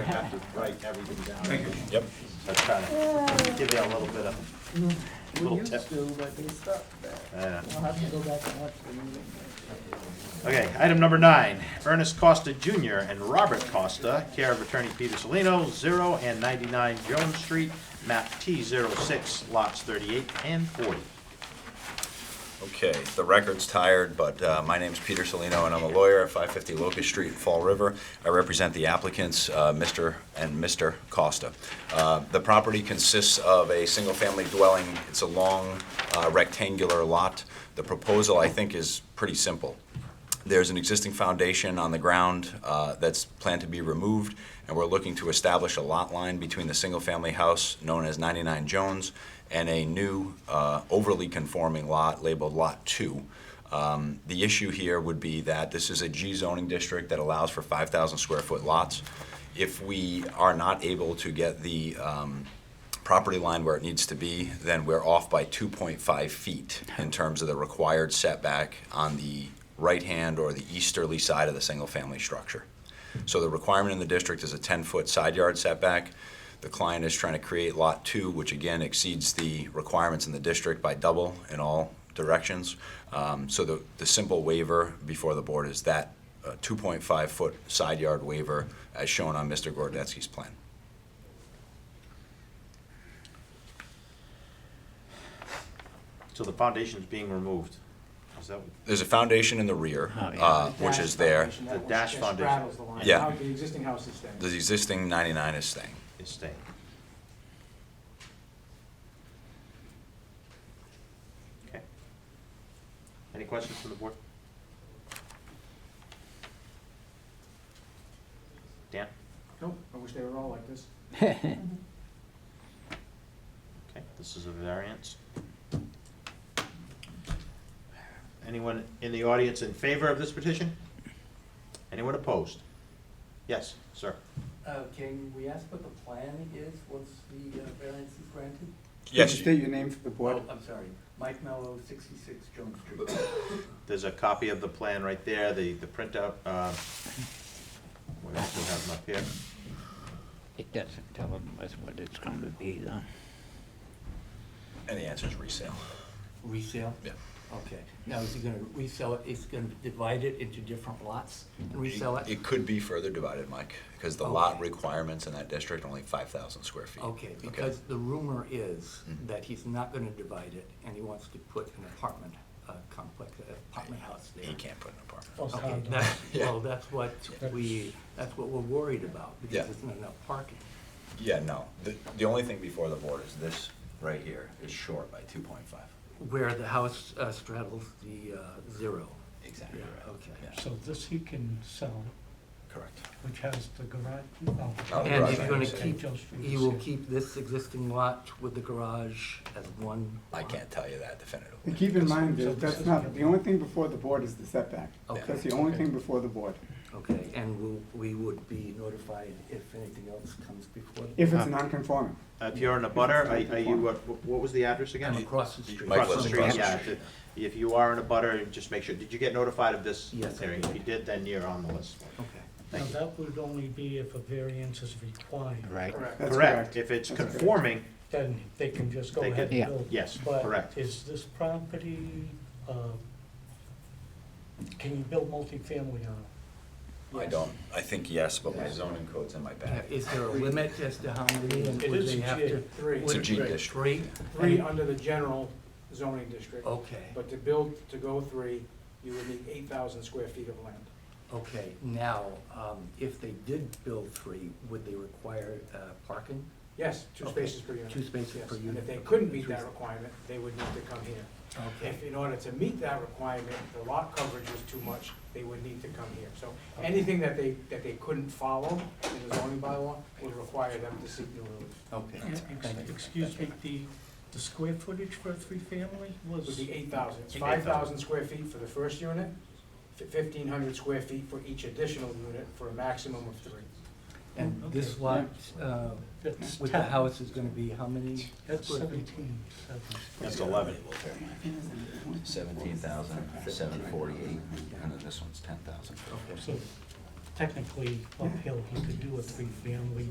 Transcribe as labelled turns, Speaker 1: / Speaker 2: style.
Speaker 1: have to write everything down.
Speaker 2: Thank you.
Speaker 3: Yep.
Speaker 1: So I try to give you a little bit of,
Speaker 4: We
Speaker 5: Mm-hmm.
Speaker 1: Little
Speaker 4: used
Speaker 1: tip.
Speaker 4: to, but they stopped that.
Speaker 1: uh,
Speaker 4: I'll have to go back and watch the meeting.
Speaker 1: Okay, item number nine, Ernest Costa Jr. and Robert Costa, care of attorney Peter Salino, zero and ninety-nine Jones Street, map T 6 lots thirty-eight and forty.
Speaker 3: Okay, the record's tired, but uh, my name's Peter Salino, and I'm a lawyer at 550 Locust Street, Fall River. I represent the applicants, uh, Mr. and Mr. Costa. Uh, The property consists of a single-family dwelling. It's a long uh, rectangular lot. The proposal, I think, is pretty simple. There's an existing foundation on the ground uh, that's planned to be removed, and we're looking to establish a lot line between the single-family house known as 99 Jones and a new uh, overly conforming lot labeled Lot 2. Um, The issue here would be that this is a G zoning district that allows for 5,000 square foot lots. If we are not able to get the um, property line where it needs to be, then we're off by 2.5 feet in terms of the required setback on the right-hand or the easterly side of the single-family structure. So the requirement in the district is a 10-foot side yard setback. The client is trying to create Lot 2, which again exceeds the requirements in the district by double in all directions. Um, So the, the simple waiver before the board is that uh, 2.5-foot side yard waiver as shown on Mr. Gordetsky's plan.
Speaker 1: So the foundation's being removed. Is that, what-
Speaker 3: There's a foundation in the rear,
Speaker 5: Oh,
Speaker 3: uh, which is there.
Speaker 1: The dash foundation.
Speaker 6: straddles the line.
Speaker 3: Yeah.
Speaker 6: How The existing house is standing.
Speaker 3: The existing 99 is staying.
Speaker 1: is staying? Okay. Any questions from the board? Dan?
Speaker 6: Nope, I wish they were all like this.
Speaker 1: Okay, this is a variance. Anyone in the audience in favor of this petition? Anyone opposed? Yes, sir.
Speaker 5: Uh, Can we ask what the plan is once the uh, variance is granted?
Speaker 3: Yes,
Speaker 4: State your name for the board.
Speaker 5: Oh, I'm sorry, Mike Mello, 66 Jones Street.
Speaker 1: There's a copy of the plan right there, the, the printout, uh, we also have them up here.
Speaker 7: It doesn't tell them that's what it's going to be, though.
Speaker 3: and the answer is resale.
Speaker 5: Resale?
Speaker 3: Yeah.
Speaker 5: Okay. Now, is he going to resell it, is going to divide it into different lots and resell it?
Speaker 3: It could be further divided, Mike, because the lot requirements in that district are only 5,000 square feet.
Speaker 5: Okay, because the rumor is that he's not going to divide it, and he wants to put an apartment uh, complex, an apartment house there.
Speaker 3: He can't put an
Speaker 8: Oh,
Speaker 3: apartment.
Speaker 5: Okay, that's,
Speaker 3: Yeah.
Speaker 5: well, that's what we, that's what we're worried about,
Speaker 3: Yeah.
Speaker 5: because there's not enough parking.
Speaker 3: Yeah, no. The, the only thing before the board is this right here is short by 2.5.
Speaker 5: Where the house uh, straddles the uh, zero.
Speaker 3: Exactly
Speaker 5: Yeah,
Speaker 3: right.
Speaker 5: okay.
Speaker 3: Yeah,
Speaker 8: So this he can sell,
Speaker 3: Correct.
Speaker 8: which has the garage,
Speaker 3: No,
Speaker 8: oh.
Speaker 3: the
Speaker 5: And
Speaker 3: garage
Speaker 5: he's gonna
Speaker 3: is in.
Speaker 5: keep,
Speaker 8: Joe Street
Speaker 5: he
Speaker 8: is
Speaker 5: will
Speaker 8: here.
Speaker 5: keep this existing lot with the garage as one.
Speaker 3: I can't tell you that definitively.
Speaker 4: And keep in
Speaker 3: because-
Speaker 4: mind that that's not, the only thing before the board is the setback.
Speaker 5: Okay.
Speaker 4: That's the only thing before the board,
Speaker 5: Okay, and we'll, we would be notified if anything else comes before. the-
Speaker 4: if it's non-conforming.
Speaker 1: Uh, If you're in a butter, are are you, what, what was the address again?
Speaker 5: I'm across the street.
Speaker 3: Mike
Speaker 1: Across the
Speaker 3: was
Speaker 1: street,
Speaker 3: across the
Speaker 1: yeah. If if you are in a butter, just make sure, did you get notified of this
Speaker 5: Yes, I
Speaker 1: hearing? If you did, then you're on the list.
Speaker 5: Okay.
Speaker 8: Now,
Speaker 1: Thank you.
Speaker 8: that would only be if a variance is required.
Speaker 7: Right.
Speaker 4: That's
Speaker 1: Correct, if it's
Speaker 4: That's correct.
Speaker 1: conforming,
Speaker 8: Then they can just go
Speaker 1: They
Speaker 8: ahead
Speaker 1: can-
Speaker 8: and
Speaker 7: Yeah.
Speaker 8: build.
Speaker 1: yes, correct.
Speaker 8: But is this property, uh, can you build multifamily on it?
Speaker 3: I don't, I think yes, but my zoning code's in my
Speaker 5: Yeah,
Speaker 3: bag.
Speaker 5: Is there a limit as to how many and
Speaker 8: It
Speaker 5: would
Speaker 8: is
Speaker 5: they
Speaker 8: a
Speaker 5: have
Speaker 8: G,
Speaker 5: to?
Speaker 6: three.
Speaker 3: It's a
Speaker 5: would-
Speaker 3: G district.
Speaker 5: Three?
Speaker 6: Three under the general zoning district.
Speaker 5: Okay,
Speaker 6: But to build, to go three, you would need eight thousand square feet of land.
Speaker 5: okay. Now, um, if they did build three, would they require uh, parking?
Speaker 6: Yes, two
Speaker 5: Okay.
Speaker 6: spaces per unit.
Speaker 5: Two spaces
Speaker 6: Yes,
Speaker 5: per
Speaker 6: And
Speaker 5: unit.
Speaker 6: if they couldn't meet
Speaker 5: Three-
Speaker 6: that requirement, they would need to come here.
Speaker 5: Okay,
Speaker 6: If, in order to meet that requirement, the lot coverage was too much, they would need to come here. So anything that they, that they couldn't follow in the zoning bylaw would require them to seek new relief.
Speaker 5: okay. Thank you.
Speaker 8: Excuse me, the, the square footage for a three-family
Speaker 6: Would
Speaker 8: was?
Speaker 6: be eight thousand. It's
Speaker 1: 8,000.
Speaker 6: five thousand square feet for the first unit, fifteen hundred square feet for each additional unit, for a maximum of three.
Speaker 5: And this
Speaker 8: Okay.
Speaker 5: lot, uh,
Speaker 8: That's
Speaker 5: with the
Speaker 8: ten.
Speaker 5: house is gonna be how many?
Speaker 8: That's
Speaker 5: square feet?
Speaker 8: seventeen, seven.
Speaker 1: That's eleven.
Speaker 3: Seventeen thousand, seven forty-eight, and then this one's ten thousand.
Speaker 5: Okay.
Speaker 8: So technically uphill, he could do a three-family